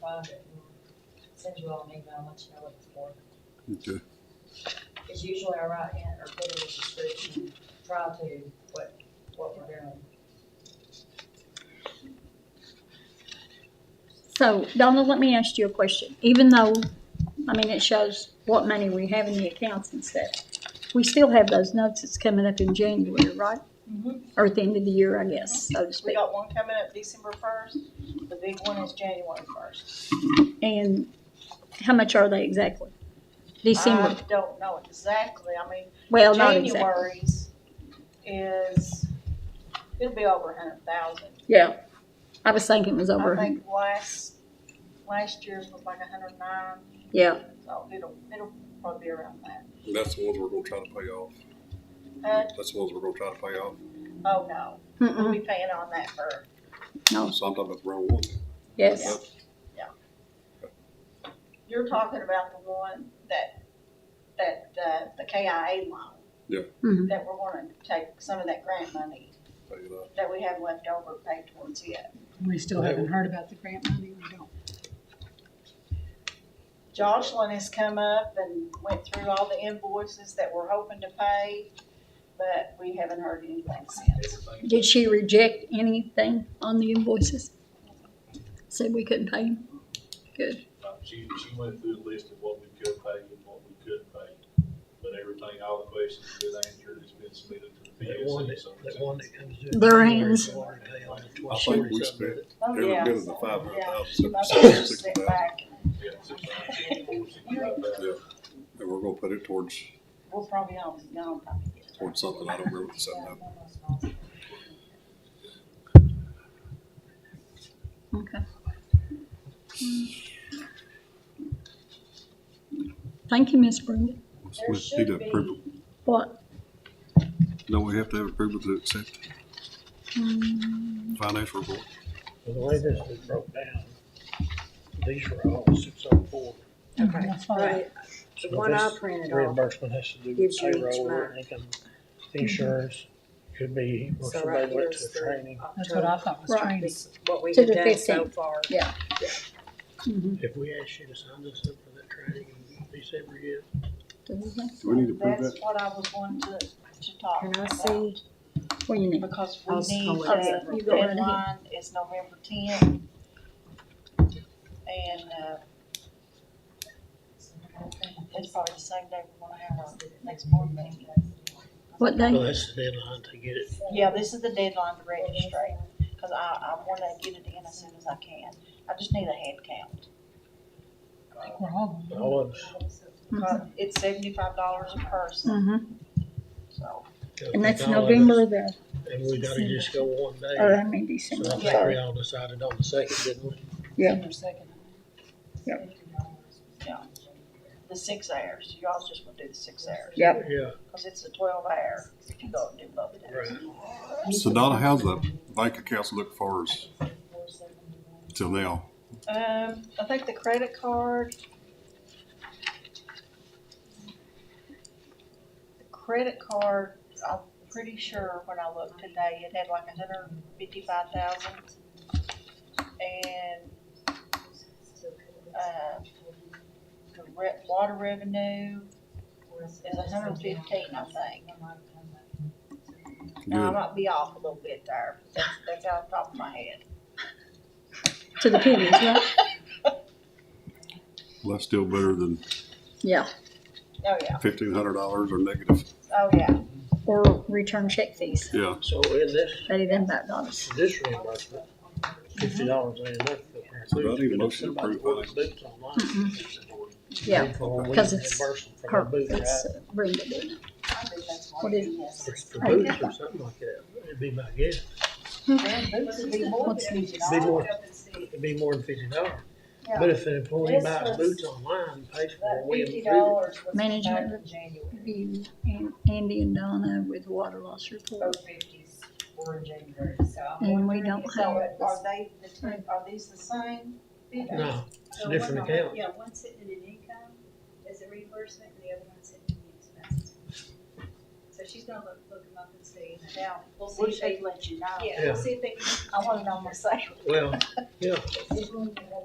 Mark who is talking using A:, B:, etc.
A: find it and send you all an email and let you know what it's for.
B: Okay.
A: It's usually I write in or put in the description, try to, what, what we're doing.
C: So Donna, let me ask you a question. Even though, I mean, it shows what money we have in the accounts and stuff, we still have those notes that's coming up in January, right? Or at the end of the year, I guess, so to
D: Mm-hmm. We
C: speak.
D: got one coming up December first, the big one is January first.
C: And how much are they exactly? December,
D: I don't know exactly, I mean,
C: well, not exactly.
D: January's is, it'll be over a hundred thousand.
C: Yeah. I was thinking it was over,
D: I
C: a hundred.
D: think last, last year's was like a hundred nine,
C: yeah.
D: so it'll, it'll probably be around that.
B: And that's the ones we're gonna try to pay off.
D: Uh,
B: That's the ones we're gonna try to pay off.
D: oh no, we'll
C: Mm-mm,
D: be paying on that for, Oh.
C: no,
B: So I'm talking about the wrong one.
C: yes.
D: you're talking about the one that, that, uh, the KIA loan.
B: Yeah.
C: Mhm.
D: That we're gonna take some of that grant money
B: Pay it off.
D: that we have left over paid towards yet.
E: We still haven't heard about the grant money, we don't.
D: Jocelyn has come up and went through all the invoices that we're hoping to pay, but we haven't heard anything since.
C: Did she reject anything on the invoices? Said we couldn't pay them? Good.
F: Uh, She, she went through the list of what we could pay and what we couldn't pay, but everything, all the questions have been answered, it's been submitted to the
G: That one
F: PSC,
G: that,
F: so.
G: that one that comes due.
C: Their hands.
G: Water pay on the
B: I
G: 20th.
B: think we spent
D: Oh,
B: every
D: yeah.
B: bit of the five hundred thousand,
D: My
B: seven hundred
D: parents
B: sixty
D: sit
B: thousand.
D: back and
F: Yeah, six hundred sixty-four, sixty-five thousand.
B: And we're gonna put it towards,
D: We'll probably all be gone by the end.
B: towards something. I don't remember what the seven
A: Yeah,
B: hundred.
A: one of those ones.
C: Okay. Thank you, Miss Brenda.
A: There
B: We
A: should
B: need to
A: be,
B: approve
C: What?
B: it. No, we have to have approval to accept
C: mm,
B: the financial report.
G: So The way this is broke down, these are all six oh four.
E: Okay.
H: Right, the one I printed off,
G: Reimbursement has to do with
H: gives you each
G: payroll,
H: month.
G: income, insurance, could be, or
H: So
G: somebody
H: right
G: went to
H: here's the-
G: training.
E: That's what I thought was
C: Right.
E: strange.
H: this, what we
C: To
H: have
C: the
H: done so
C: 15th.
H: far.
C: Yeah. Mhm.
G: If we ask you to sign this up for that training in December yet,
B: Do we need to approve
D: That's
B: that?
D: what I was wanting to, to talk
H: Can I
D: about,
H: see?
C: What you need?
D: because we
H: I'll just
D: need
H: call it
D: that
C: separate. You go right ahead.
D: deadline is November tenth. And, uh, it's probably the same day we're gonna have our next board meeting.
C: What
G: well,
C: day?
G: that's the deadline to get it.
D: Yeah, this is the deadline to register, because I, I want to get it in as soon as I can. I just need a head count.
E: I think we're all going.
G: All of us.
D: Uh, It's seventy-five dollars a person,
C: Mhm.
D: so,
C: And that's
G: All of us.
C: November the,
G: And we gotta just go one day.
C: or I mean
G: So I
C: December.
G: think we all decided on the second, didn't we?
C: Yeah.
E: Their second.
D: yeah. The six hours, y'all just want to do the six hours,
C: Yep.
G: Yeah,
D: because it's a twelve hour if you go and do both days.
B: So Donna, how's the bank accounts look for us till now?
D: Um, I think the credit card. The credit card, I'm pretty sure when I looked today, it had like a hundred and fifty-five thousand. And, uh, the re- water revenue is a hundred and fifteen, I think. Now, I
B: Good.
D: might be off a little bit there, but that's, that's out of the top of my head.
C: To the pennies, right?
B: Well, that's still better than
C: Yeah.
D: Oh, yeah,
B: fifteen hundred dollars or negative.
D: oh, yeah.
C: Or return check fees,
B: Yeah,
G: so in this,
C: better than five dollars.
G: this reimbursement, fifty dollars ain't enough.
B: So do I need a motion to approve
C: Yeah, because it's
G: Her
C: Her,
G: boots, right?
C: it's uh, Brenda did it.
D: I think that's
C: What is-
D: yes.
G: It's for boots or something like that, it'd be my guess,
D: Man, boots would be more
C: What's
D: than
C: needed?
D: $50.
G: Be more. it'd be more than fifty dollars.
D: Yeah.
G: But if an employee
D: This
G: buys
D: was-
G: boots online, pays for
D: That
G: it, we
D: fifty
G: approve
D: dollars was
C: Management.
D: back in January.
C: You and Andy and Donna with water loss report.
A: Both fifties were in January, so. I'm
C: And we
A: wondering
C: don't
A: if
D: So
C: have-
A: that
D: are they, the two, are these the same?
G: it. No, it's a different account.
I: Yeah, one's sitting in an income as a reimbursement, and the other one's sitting in the expenses. So she's gonna look, look them up and see.
D: Now,
I: We'll see
D: we
I: if they,
D: should let you know.
I: yeah,
G: Yeah.
I: we'll see if they can
D: I wanna know myself.
G: Well,